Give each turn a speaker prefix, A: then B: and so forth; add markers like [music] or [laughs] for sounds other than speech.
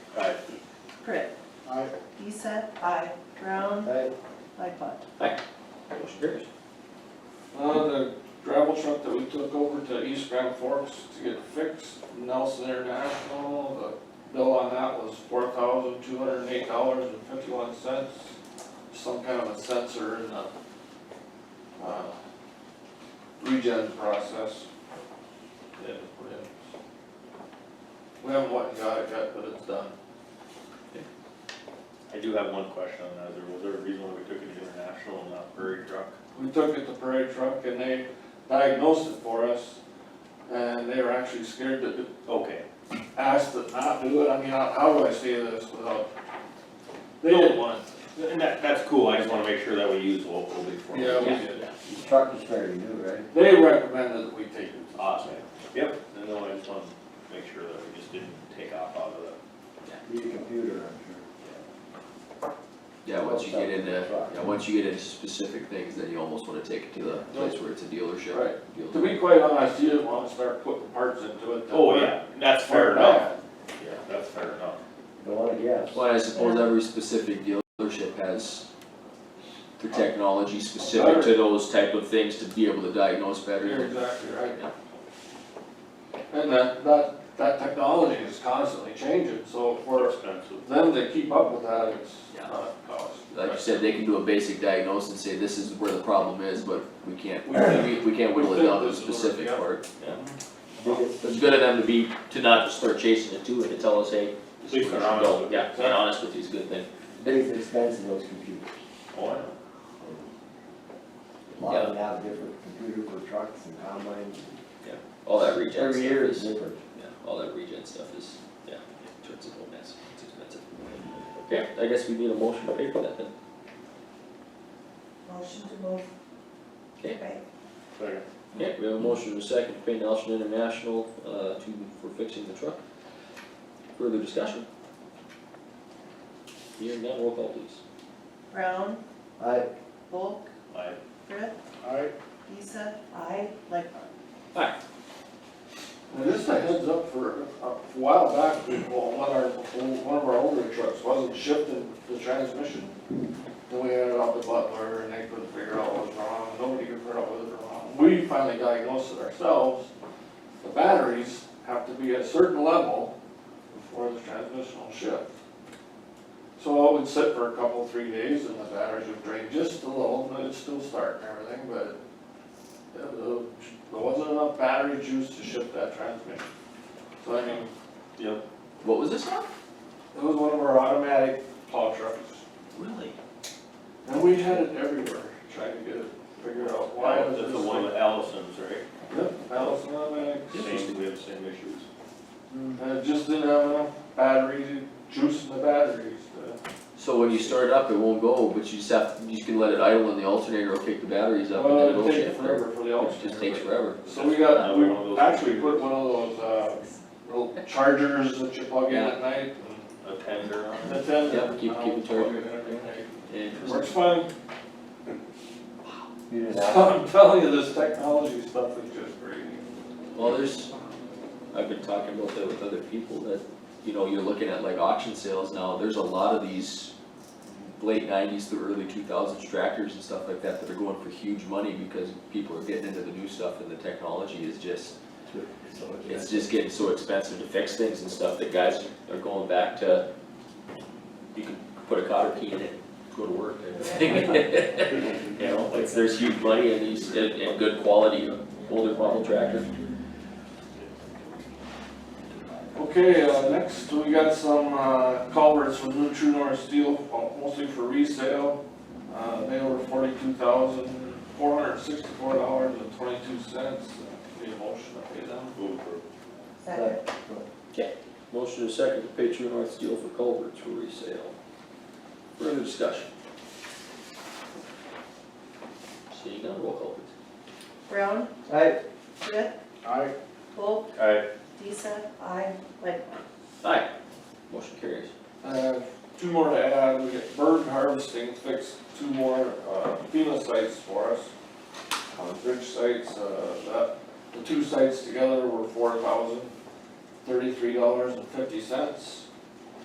A: Pritt.
B: Aye.
A: Deeseth. Aye. Brown.
C: Aye.
A: Lightfoot.
C: Motion carries.
D: Uh, the gravel truck that we took over to East Grand Forks to get fixed, Nelson International, the bill on that was four thousand two hundred and eight dollars and fifty-one cents. Some kind of a sensor in the, uh, regen process. They had to put in. We haven't went and got it yet, but it's done.
E: I do have one question on that, Is there- was there a reason why we took it to international and not prairie truck?
D: We took it to parade truck and they diagnosed it for us, and they were actually scared to do
E: Okay,
D: asked to not do it, I mean, how, how do I say this without? They didn't want
E: and that, that's cool, I just wanna make sure that we use local before.
D: it, yeah, we did.
C: The truck is fairly new, right?
D: They recommended that we take it.
E: Awesome, yep, no, no, I just wanna make sure that we just didn't take off out of the,
C: Need a computer, I'm
F: Yeah, once you get into,
C: Truck.
F: yeah, once you get into specific things, then you almost wanna take it to the place where it's a dealership.
D: Right.
F: deal-
D: To be quite honest, you didn't wanna start putting parts into it. that
E: oh,
D: were-
E: yeah, that's
D: were
E: fair enough,
D: bad.
E: yeah, that's fair enough.
C: sure. Don't wanna guess.
F: Well, I suppose every specific dealership has their technology specific to those type of things to be able to diagnose
D: You're
F: better.
D: exactly
F: Yeah.
D: right. And that, that, that technology is constantly changing, so for
E: expensive.
D: them to keep up with that, it's
F: Yeah.
D: not cost.
F: Like you said, they can do a basic diagnosis and say, this is where the problem is, but we can't,
D: We can't-
F: we, we can't whittle
D: we
F: it down to a
D: couldn't do it,
F: specific
D: yeah.
F: part.
C: Think it's-
F: So it's good of them to be, to not just start chasing it too, and to tell us, hey, this is
E: Please,
F: where
E: they're
F: you should go.
E: honest.
F: Yeah, being honest with you is a good thing.
C: Biggest expense of those computers.
E: Oh, I know,
C: A lot of them have different computer for trucks and combines.
F: All that regen stuff
C: Every year is
F: is-
C: different.
F: Yeah, all that regen stuff is, yeah, it turns into a mess, it's expensive. Okay, I guess we need a motion to pay for that then.
A: Motion to move.
F: Okay.
E: fair.
F: Okay, we have a motion and a second to pay Nelson International, uh, to, for fixing the truck. Further discussion? Hearing none, roll call please.
A: Brown.
C: I,
A: Volk.
E: I,
A: Pritt.
B: Aye.
A: Deeseth. Aye. Lightfoot.
D: And just a heads up for, a while back, we, well, one of our, one of our older trucks wasn't shifting the transmission. Then we had it out to Butler and they couldn't figure out what was wrong, nobody could figure out what was wrong. We finally diagnosed it ourselves. The batteries have to be at a certain level before the transmission will shift. So it would sit for a couple, three days and the batteries would drain just a little, but it'd still start and everything, but yeah, the- There wasn't enough battery juice to ship that transmission. So I mean,
E: yep,
F: What was this now?
D: it was one of our automatic plow trucks.
F: Really?
D: And we had it everywhere, trying to get it, figure out why it was
E: that's
D: this
E: the one
D: thing.
E: with Allison's, right?
D: Yep, Allison automatics.
E: Same, we have the same issues.
D: And it just didn't have enough battery, juice in the batteries to.
F: So when you start it up, it won't go, but you just have, you can let it idle in the alternator or kick the batteries up and
D: Well,
F: then Uh, it'll
D: it takes
F: shift.
D: forever for the
F: It just takes
D: alternator.
F: forever.
D: So we
E: Uh,
D: got,
E: one of
D: we
E: those-
D: actually put one of those, uh, little chargers that you plug in at night.
E: A tender on
D: and
E: it.
D: That's it.
F: Yep, keep- keep it charged.
D: Works fine.
C: you didn't have,
D: I'm telling you, this technology stuff is just crazy.
F: Well, there's, I've been talking about that with other people, that, you know, you're looking at like auction sales now, there's a lot of these late nineties to early two thousands tractors and stuff like that that are going for huge money because people are getting into the new stuff and the technology is just,
C: [laughs] so
F: it's just getting so expensive to fix things and stuff that guys are going back to, you can put a cotter key in it, go to work. [laughs] You know, it's, there's huge money in these, in, in good quality older model tractors.
D: Okay, uh, next, we got some, uh, culverts from New True North Steel, uh, mostly for resale. Uh, they were forty-two thousand, four hundred sixty-four dollars and twenty-two cents. Need a motion to pay them?
E: Move for-
F: Motion is second to pay True North Steel for culverts for resale. Further discussion? Seeing none, roll call please.
A: Brown.
C: I,
A: Pritt.
B: Aye.
A: Volk.
E: Aye.
A: Deeseth. Aye. Lightfoot.
F: Aye. Motion carries.
D: Uh, two more to add, we get bird harvesting fixed, two more uh, FEMA sites for us. Uh, bridge sites, uh, that, the two sites together were four thousand thirty-three dollars and fifty cents.